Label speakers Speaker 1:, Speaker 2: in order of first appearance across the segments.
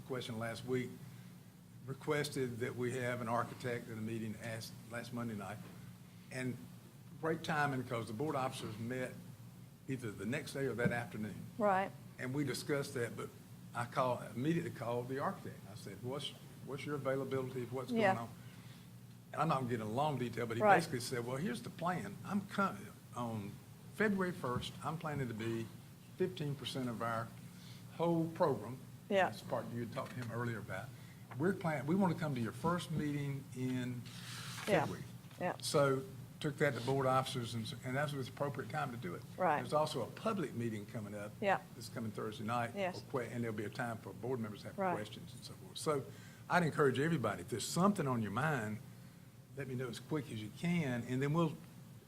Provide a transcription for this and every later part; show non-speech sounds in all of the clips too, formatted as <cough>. Speaker 1: question last week, requested that we have an architect at a meeting asked last Monday night. And great timing, because the board officers met either the next day or that afternoon.
Speaker 2: Right.
Speaker 1: And we discussed that, but I called, immediately called the architect. I said, what's, what's your availability, what's going
Speaker 2: Yeah.
Speaker 1: on? And I'm not getting into long detail, but he
Speaker 2: Right.
Speaker 1: basically said, well, here's the plan. I'm coming, on February first, I'm planning to be fifteen percent of our whole program.
Speaker 2: Yeah.
Speaker 1: That's the part you had talked to him earlier about. We're planning, we want to come to your first meeting in
Speaker 2: Yeah.
Speaker 1: February.
Speaker 2: Yeah.
Speaker 1: So took that to board officers and, s- and that was the appropriate time to do it.
Speaker 2: Right.
Speaker 1: There's also a public meeting coming up.
Speaker 2: Yeah.
Speaker 1: It's coming Thursday night.
Speaker 2: Yes.
Speaker 1: or que- And there'll be a time for board members to have
Speaker 2: Right.
Speaker 1: questions and so forth. So I'd encourage everybody, if there's something on your mind, let me know as quick as you can, and then we'll,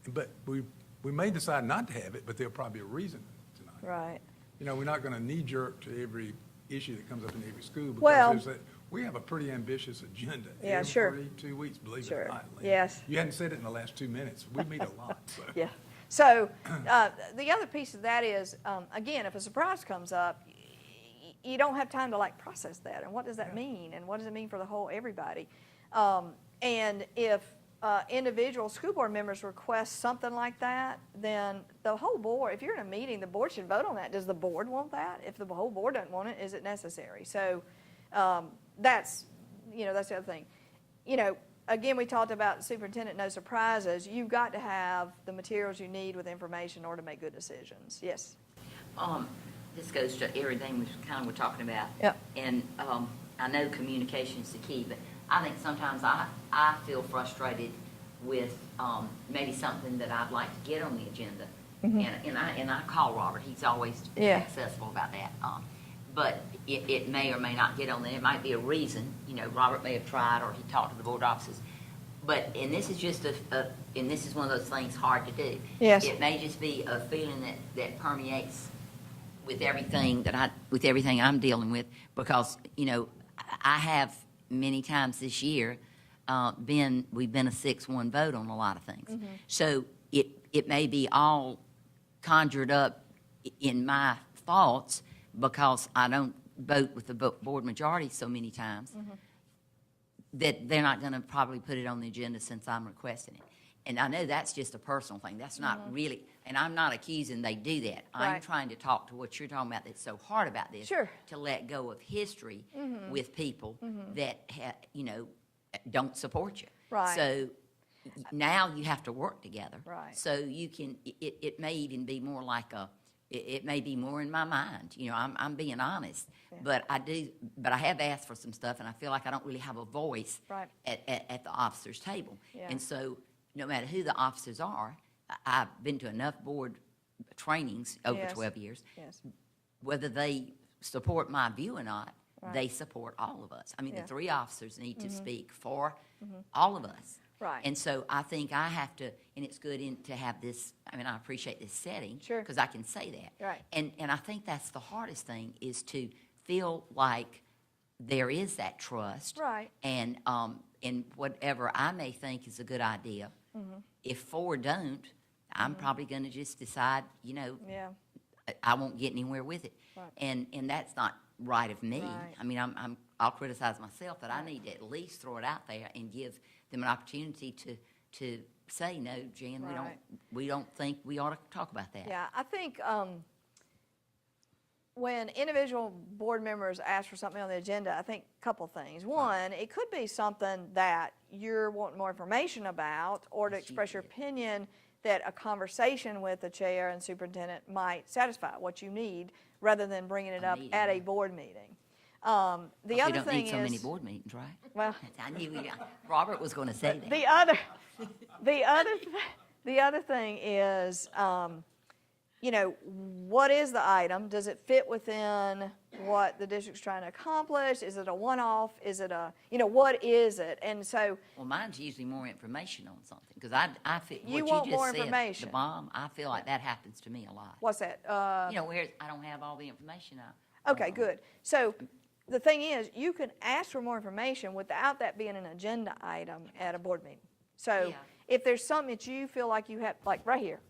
Speaker 1: but we, we may decide not to have it, but there'll probably be a reason tonight.
Speaker 2: Right.
Speaker 1: You know, we're not gonna knee jerk to every issue that comes up in every school. because
Speaker 2: Well-
Speaker 1: there's that- We have a pretty ambitious agenda.
Speaker 2: Yeah, sure.
Speaker 1: Every two weeks, believe it
Speaker 2: Sure.
Speaker 1: or not. Lynn.
Speaker 2: Yes.
Speaker 1: You hadn't said it in the last two minutes. We meet a lot, so.
Speaker 2: <laughs> Yeah. So uh, the other piece of that is, um, again, if a surprise comes up, y- y- you don't have time to like process that. And what does that mean? And what does it mean for the whole everybody? Um, and if uh, individual school board members request something like that, then the whole board, if you're in a meeting, the board should vote on that. Does the board want that? If the whole board doesn't want it, is it necessary? So um, that's, you know, that's the other thing you know, again, we talked about superintendent, no surprises. You've got to have the materials you need with information in order to make good decisions. Yes.
Speaker 3: Um, this goes to everything we kind of were talking about.
Speaker 2: Yep.
Speaker 3: And, um, I know communication's the key, but I think sometimes I, I feel frustrated with, um, maybe something that I'd like to get on the agenda. And, and I, and I call Robert, he's always
Speaker 2: Mm-hmm. Yeah.
Speaker 3: accessible about that. Um, but it, it may or may not get on there, it might be a reason, you know, Robert may have tried or he talked to the board officers. But, and this is just a, a, and this is one of those things hard to do.
Speaker 2: Yes.
Speaker 3: It may just be a feeling that, that permeates with everything that I, with everything I'm dealing with, because, you know, I- I have many times this year, uh, been, we've been a six-one vote on a lot of things. So it, it may be all conjured up i- in my thoughts, because I don't vote with the bo- board majority so many times, that they're not gonna probably put it on the agenda since I'm requesting it. And I know that's just a personal thing, that's not really, and I'm not accusing they do that. I'm
Speaker 2: Mm-hmm. Right.
Speaker 3: trying to talk to what you're talking about that's so hard about this.
Speaker 2: Sure. Mm-hmm.
Speaker 3: To let go of history with people that, ha- you know, don't support you.
Speaker 2: Right.
Speaker 3: So now you have to work together.
Speaker 2: Right.
Speaker 3: So you can, it, it may even be more like a, it, it may be more in my mind, you know, I'm, I'm being honest. But I do, but I have asked for some stuff and I feel like I don't really have a voice.
Speaker 2: Right.
Speaker 3: At, at, at the officers' table.
Speaker 2: Yeah.
Speaker 3: And so, no matter who the officers are, I, I've been to enough board trainings over
Speaker 2: Yes.
Speaker 3: twelve years.
Speaker 2: Yes.
Speaker 3: Whether they support my view or not,
Speaker 2: Right.
Speaker 3: they support all of us. I mean, the
Speaker 2: Yeah. Mm-hmm.
Speaker 3: three officers need to speak for all of us.
Speaker 2: Right.
Speaker 3: And so I think I have to, and it's good in, to have this, I mean, I appreciate this setting.
Speaker 2: Sure.
Speaker 3: Because I can say that.
Speaker 2: Right.
Speaker 3: And, and I think that's the hardest thing, is to feel like there is that trust.
Speaker 2: Right.
Speaker 3: And, um, and whatever I may think is a good idea,
Speaker 2: Mm-hmm.
Speaker 3: if four don't, I'm probably gonna just decide, you know,
Speaker 2: Yeah.
Speaker 3: I- I won't get anywhere with it.
Speaker 2: Right.
Speaker 3: And, and that's not right of me.
Speaker 2: Right.
Speaker 3: I mean, I'm, I'm, I'll criticize myself, but I need to at least throw it out there and give them an opportunity to, to say, no, Jan, we don't,
Speaker 2: Right.
Speaker 3: we don't think we ought to talk about that.
Speaker 2: Yeah. I think um, when individual board members ask for something on the agenda, I think a couple things. One, it could be something that you're wanting more information about or to
Speaker 3: Yes, you
Speaker 2: express your
Speaker 3: did.
Speaker 2: opinion that a conversation with the chair and superintendent might satisfy what you need rather than bringing it
Speaker 3: A
Speaker 2: up
Speaker 3: meeting,
Speaker 2: at a
Speaker 3: right.
Speaker 2: board meeting. Um, The
Speaker 3: We
Speaker 2: other
Speaker 3: don't
Speaker 2: thing
Speaker 3: need so many
Speaker 2: is,
Speaker 3: board meetings, right?
Speaker 2: well,
Speaker 3: <laughs> I knew, we- Robert was gonna say that.
Speaker 2: the other, the other, th- the other thing is, um, you know, what is the item? Does it fit within what the district's trying to accomplish? Is it a one-off? Is it a, you know, what is it? And so,
Speaker 3: Well, mine's usually more information on something, because I, I feel,
Speaker 2: You
Speaker 3: what
Speaker 2: want
Speaker 3: you
Speaker 2: more
Speaker 3: just said, the
Speaker 2: information.
Speaker 3: bomb, I feel like that happens to me a lot.
Speaker 2: what's that? Uh,
Speaker 3: You know, where I don't have all the information I.
Speaker 2: Okay, good. So the thing is, you can ask for more information without that being an agenda item at a board meeting. So
Speaker 3: Yeah.
Speaker 2: if there's something that you feel like you have, like right here,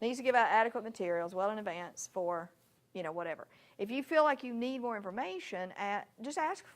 Speaker 2: needs to give out adequate materials well in advance for, you know, whatever. If you feel like you need more information, a- just ask